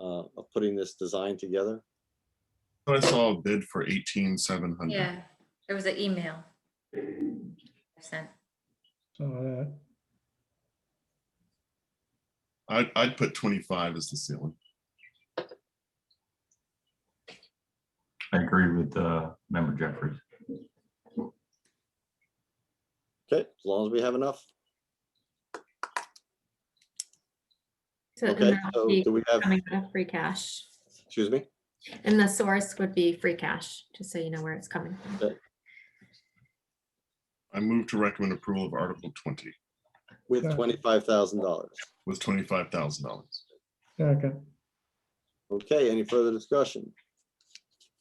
uh, of putting this design together. So I saw a bid for eighteen seven hundred. Yeah, there was an email. I Sent. So that, I'd, I'd put twenty-five as the ceiling. I agree with uh, member Jeffries. Okay, as long as we have enough. So and Okay, that'll so be do we have, Coming out of free cash. excuse me? And the source would be free cash, just so you know where it's coming from. I move to recommend approval of Article twenty With Yeah. twenty-five thousand dollars. with twenty-five thousand dollars. second, Okay, any further discussion?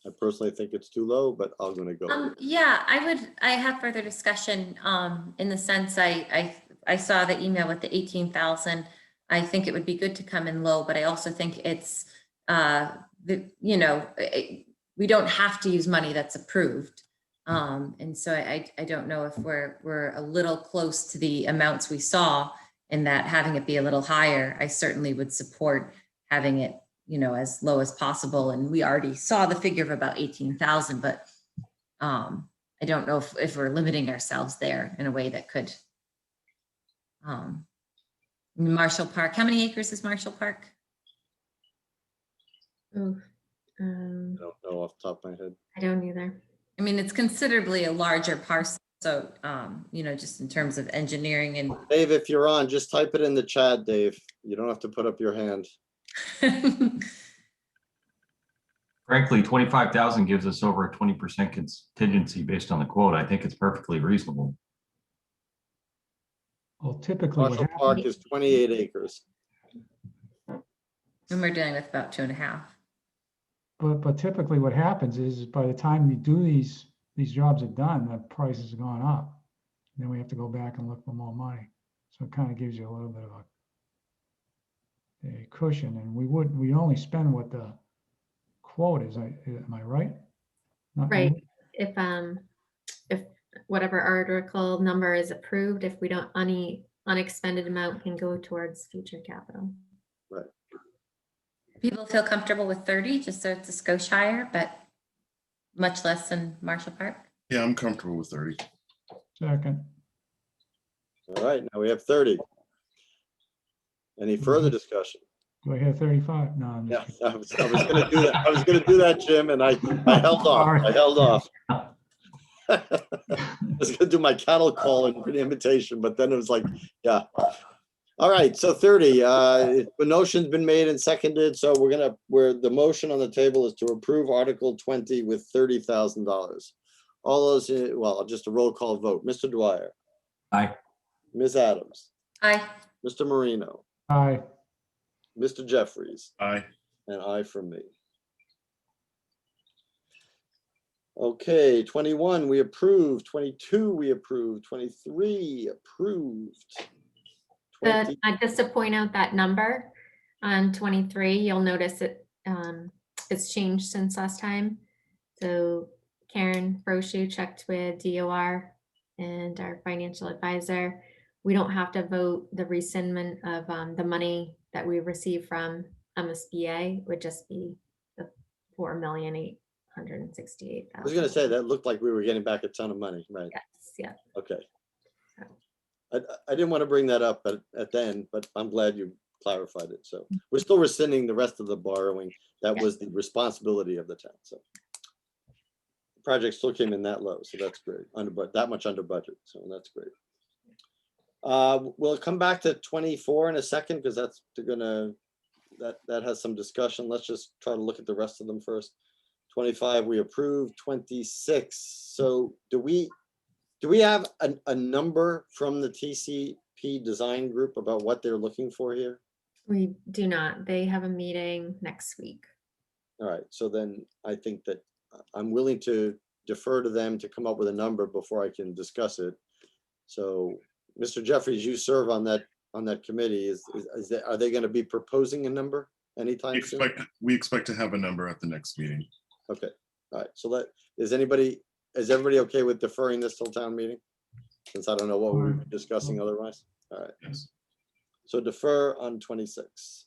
I personally think it's too low, but I'm gonna go. with Um, yeah, I would, I have further discussion, um, in the sense I, I, I saw the email with the eighteen thousand. I think it would be good to come in low, but I also think it's, uh, the, you know, eh, we don't have to use money that's approved. Um, and so I, I I don't know if we're, we're a little close to the amounts we saw and that having it be a little higher, I certainly would support having it, you know, as low as possible. And we already saw the figure of about eighteen thousand, but um, I don't know if, if we're limiting ourselves there in a way that could. Um, Marshall Park, how many acres is Marshall Park? Ooh, um, I don't know off the top of my head. I don't either. I mean, it's considerably a larger parcel, so, um, you know, just in terms of engineering Dave, if you're on, just type it in the chat, Dave. You don't have to put up your hand. and Frankly, twenty-five thousand gives us over a twenty percent contingency based on the quote. I think it's perfectly reasonable. well typically what Marshall Park happens, is twenty-eight acres. and we're dealing with about two and a half. but, but typically what happens is by the time you do these, these jobs are done, the price has gone up. Then we have to go back and look for more money. So it kind of gives you a little bit of a a cushion and we would, we only spend what the quote is, I, am I right? Not- Right. If, um, if whatever article number is approved, if we don't, any unexpended amount can go towards future capital. People feel comfortable with thirty, just so it's a Scotiaire, but much less than Marshall Park. Yeah, I'm comfortable with thirty. Second, All right, now we have thirty. Any further discussion? do I hear thirty-five? No, I'm Yeah, just I was, I was gonna do that. I was gonna do that, Jim, and I, I held off. I held off. I was gonna do my cattle call and an invitation, but then it was like, yeah. All right, so thirty, uh, the motion's been made and seconded, so we're gonna, where the motion on the table is to approve Article twenty with thirty thousand dollars. All those, uh, well, just a roll call vote. Mr. Dwyer. Aye. Ms. Adams, I, Mr. Marino, Aye, Mr. Jeffries. Aye. And I from me. Okay, twenty-one, we approve, twenty-two, we approve, twenty-three, approved. But 20 I just to point out that number on twenty-three, you'll notice it, um, it's changed since last time. So Karen Brochu checked with DOR and our financial advisor. We don't have to vote the rescindment of, um, the money that we received from MSBA It would just be the four million eight hundred and sixty-eight I thousand. was gonna say, that looked like we were getting back a ton of money, right? Yes, yeah, Okay. I, I didn't want to bring that up at, at the end, but I'm glad you clarified it. So we're still rescinding the rest of the borrowing. That Yeah. was the responsibility of the town, so. the Project still came in that low, so that's great, under, but that much under budget, so that's great. Uh, we'll come back to twenty-four in a second, because that's, they're gonna, that, that has some discussion. Let's just try to look at the rest of them first. Twenty-five, we approve, twenty-six, so do we, do we have a, a number from the TCP design group about what they're looking for here? we do not. They have a meeting next week. All right, so then I think that uh, I'm willing to defer to them to come up with a number before I can discuss it. So, Mr. Jeffries, you serve on that, on that committee. Is, is- is, that- are they going to be proposing a number We anytime soon? expect, we expect to have a number at the next meeting. Okay, all right, so that, is anybody, is everybody okay with deferring this till town meeting? Since I don't know what we're discussing otherwise. Yes. So defer on twenty-six.